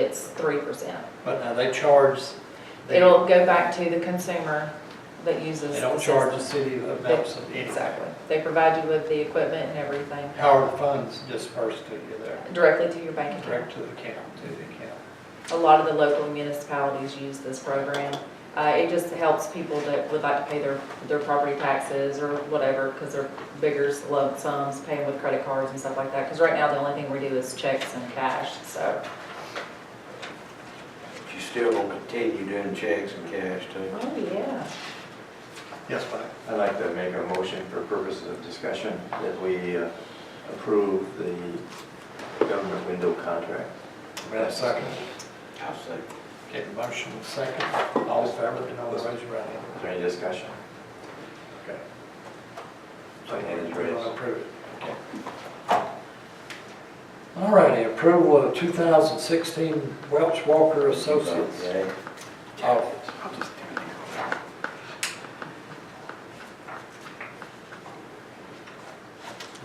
it's three percent. But now they charge, they, It'll go back to the consumer that uses. they the don't charge the system. city of Nelson anything. Exactly. They provide you with the equipment and everything How are the funds dispersed to you there, directly to your bank account. direct to the account, to the account? A lot of the local municipalities use this program. Uh, it just helps people that would like to pay their, their property taxes or whatever, because they're bigger lump sums, paying with credit cards and stuff like that. Because right now, the only thing we do is checks and cash, so. You still gonna continue doing checks and cash too? Oh, yeah. Yes, Mike? I'd like to make a motion for purposes of discussion that we uh, approve the government window contract. We have a second. I'll say. Okay, the motion is second. All in favor, let me know by raising your right hand. Is there any discussion? Okay. My hand is raised. Approve it. Okay. All righty, approval of 2016 Welch Walker Associates. Okay. Oh,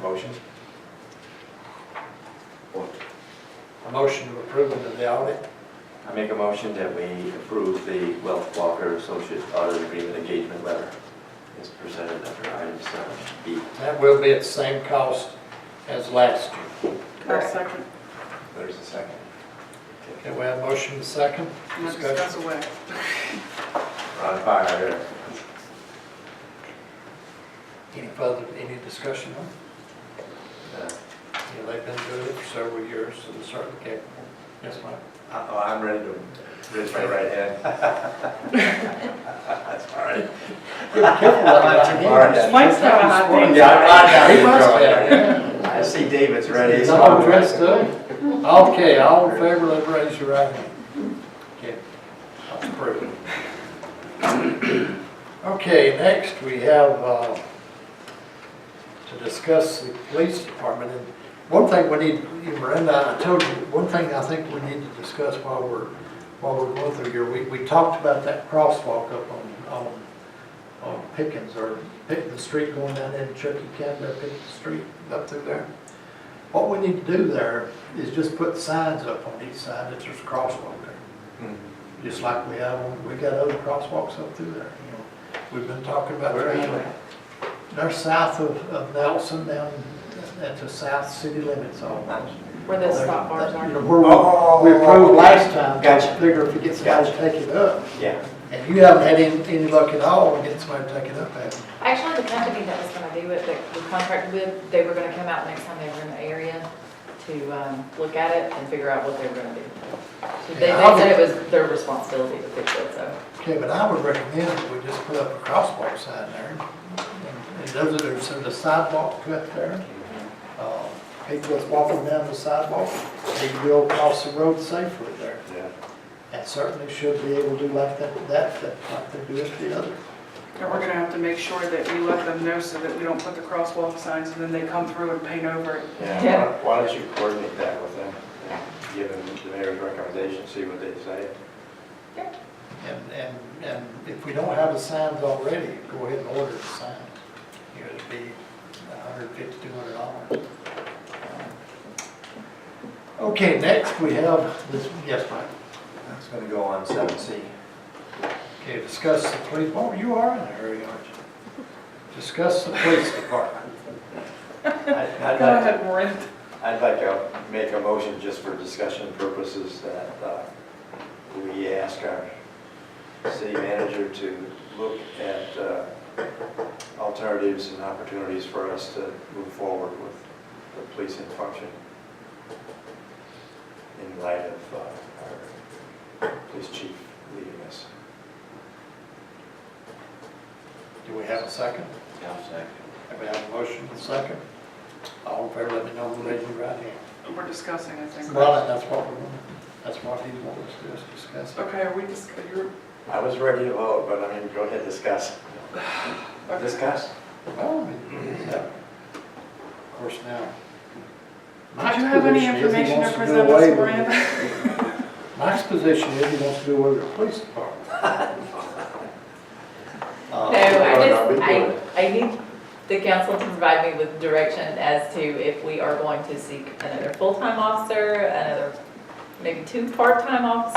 Motion? A motion to approve of the audit. I make a motion that we approve the Wealth Walker Associate Audit Agreement Engagement Letter as presented under item seven B. That will be at the same cost as last year. I'll Correct. second. There's a second. Okay, we have motion and second. I'm gonna Discussion. discuss away. Ron fire. Any further, any discussion on it? Uh, Yeah, They've been doing it for several years and certainly capable. Yes, Mike? Oh, I'm ready to raise my right hand. That's all right. Mike's got a hot Yeah, I'm thing. He must have. on down. I see David's ready. Is so- all dressed up? Okay, all in favor, let me raise your right hand. Okay, that's approved. Okay, next we have, uh, to discuss the police department. And one thing we need, Miranda, I told you, one thing I think we need to discuss while we're, while we're going through here, we, we talked about that crosswalk up on, on, on Pickens or pick the street going down into Chucky County, up Pickens Street, up through there. What we need to do there is just put signs up on each side that there's a crosswalk there, Hmm. just like we have, on- we got other crosswalks up through there, you know. We've been talking about. Where are you trying to- They're south of, of Nelson, down at the south city limits almost. Where the stop bars You know, are. where Oh, we, we approved last time, Gotcha. I figure if we get somebody to take it up. Yeah. And you haven't had any, any luck at all in getting somebody to take it up, have you? Actually, the company that was gonna do it, that we contracted with, they were gonna come out next time they were in the area to, um, look at it and figure out what they were gonna do. So They, they said it was their responsibility to fix it, so. Okay, but I would recommend that we just put up a crosswalk sign there. And- And those are, there's a sidewalk cut there. Uh, People that's walking down the sidewalk, they will cross the road safely there. Yeah. And certainly should be able to do like that, that, that, like they do at the other. And we're gonna have to make sure that we let them know so that we don't put the crosswalk signs and then they come through and paint over it. Yeah, Yeah. why- why don't you coordinate that with them? and Give them the mayor's recommendation, see what they say. And, and, and if we don't have the signs already, go ahead and order the sign. You know, it'd be a hundred fifty, two hundred dollars. Okay, next we have this, yes, Mike? It's gonna go on seven C. Okay, discuss the police, oh, you are in a hurry, aren't you? Discuss the police department. Go Go ahead, Maureen. I'd like to make a motion just for discussion purposes that uh, we ask our city manager to look at uh, alternatives and opportunities for us to move forward with the policing function in light of uh, our police chief leaving us. Do we have a second? I'll second. Have we have a motion and a second? All in favor, let me know when raise your right hand. We're discussing, I think. Well, and that's what we want, that's what he wants us to discuss. Okay, are we dis, you're, I was ready to vote, but I mean, go ahead, discuss. Discuss. Well, I mean, yeah. Of course, now. do you have any Mike's position is he wants do information to present away us, with- Miranda? Mike's position is he wants to do away with the police department. No, Uh, I I'll be just, doing it. I, I need the council to provide me with direction as to if we are going to seek another full-time officer, another maybe two part-time officers